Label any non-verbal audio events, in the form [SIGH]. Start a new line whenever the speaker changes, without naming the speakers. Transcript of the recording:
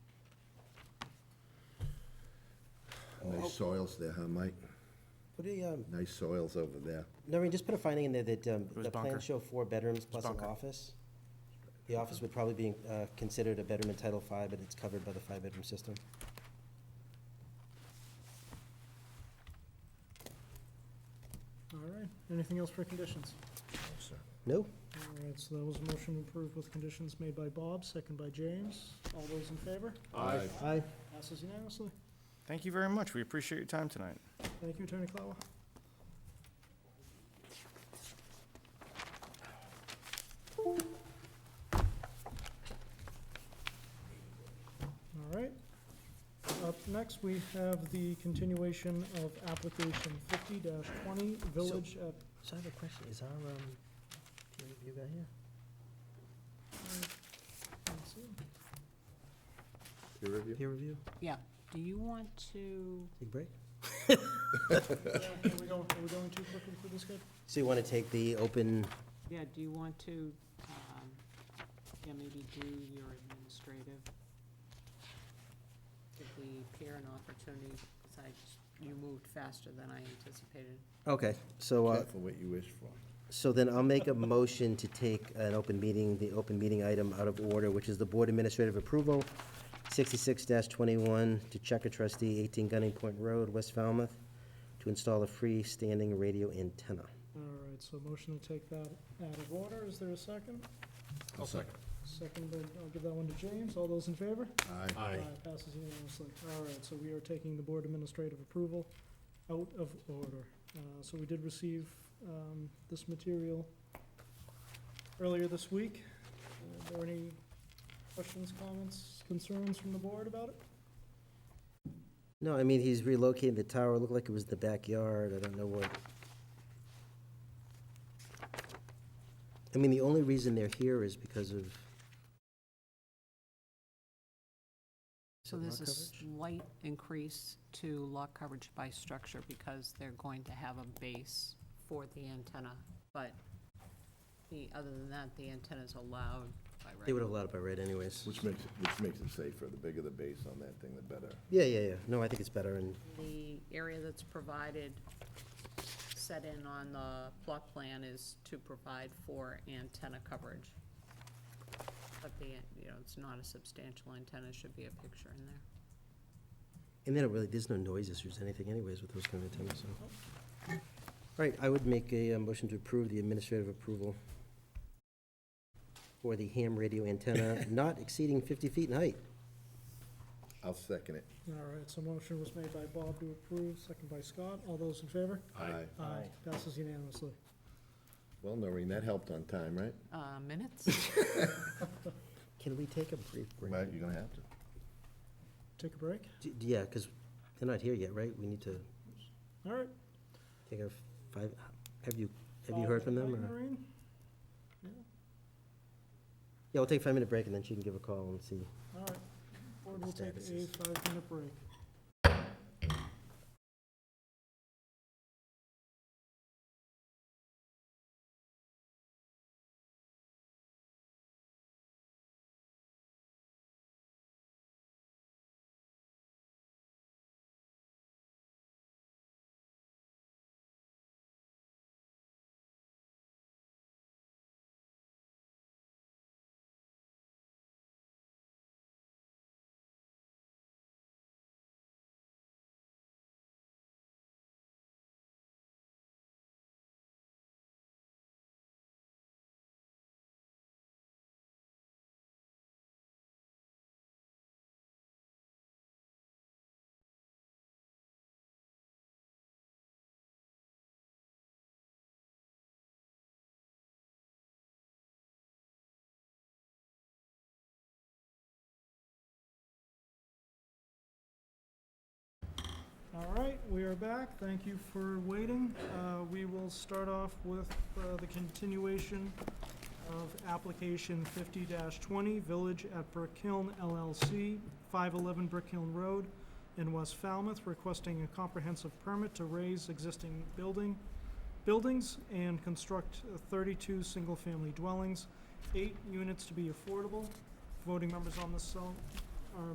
Nice soils there, huh, Mike?
Put a, um,
Nice soils over there.
Noreen, just put a finding in there that, um,
was
the
bunker.
plans show four bedrooms plus an
bunker.
office. The office would probably be, uh, considered a bedroom in Title Five, but it's covered by the five-bedroom system.
All right, anything else for conditions?
No?
All right, so that was a motion approved with conditions made by Bob, second by James. All those in favor?
Aye.
Aye.
Passes unanimously.
Thank you very much. We appreciate your time tonight.
Thank you, Attorney Clower. All right. Up next, we have the continuation of application fifty twenty, Village at,
So I have a question, is our, um, peer review guy here?
let's see.
Peer review?
Peer review,
Yeah, do you want to,
take a break?
Are we going, are we going too quickly through this, kid?
So you wanna take the open,
yeah, do you want to, um, yeah, maybe do your administrative? Give the peer an opportunity, because I, you moved faster than I anticipated.
okay, so, uh,
Careful what you wish for.
So then I'll make a motion to take an open meeting, the open meeting item out of order, which is the board administrative approval, sixty-six twenty-one, to Checker trustee, eighteen Gunning Point Road, West Falmouth, to install a freestanding radio antenna.
All right, so motion to take that out of order, is there a second?
I'll second.
Second, but I'll give that one to James, all those in favor?
Aye.
Passes unanimously, all right, so we are taking the board administrative approval out of order. Uh, so we did receive, um, this material earlier this week. Are there any questions, comments, concerns from the board about it?
No, I mean, he's relocating the tower, it looked like it was the backyard, I don't know what. I mean, the only reason they're here is because of.
So
Lot
there's a
coverage?
slight increase to lot coverage by structure, because they're going to have a base for the antenna, but the, other than that, the antenna's allowed by right.
They would have allowed it by right anyways.
Which makes, it which makes it safer. The bigger the base on that thing, the better.
Yeah, yeah, yeah, no, I think it's better and.
The area that's provided, set in on the plot plan is to provide for antenna coverage. But the, you know, it's not a substantial antenna, should be a picture in there.
And then it really, there's no noise issues, anything anyways with those kind of antennas, so. All right, I would make a uh, motion to approve the administrative approval for the ham radio [LAUGHS] antenna not exceeding 50 feet in height.
I'll second it.
All right, so motion was made by Bob to approve, second by Scott, all those in favor?
Aye.
Aye. Uh, Passes unanimously.
Well, Noreen, that helped on time, right?
Uh, minutes?
Can we take a brief break?
Right, you're gonna have to.
Take a break.
D- Yeah, because they're not here yet, right? We need to
All right.
take a five, have you, have you heard from them? or-
Maureen? Yeah,
Yeah, we'll take a five-minute break and then she can give a call and see.
all right. Board will take a
Statuses.
five-minute break. All right, we are back. Thank you for waiting. Uh, We will start off with uh, the continuation of application fifty twenty, Village at Brick Hill LLC, five eleven Brick Hill Road in West Falmouth, requesting a comprehensive permit to raise existing building, buildings and construct thirty-two single-family dwellings, eight units to be affordable. Voting members on this uh, cell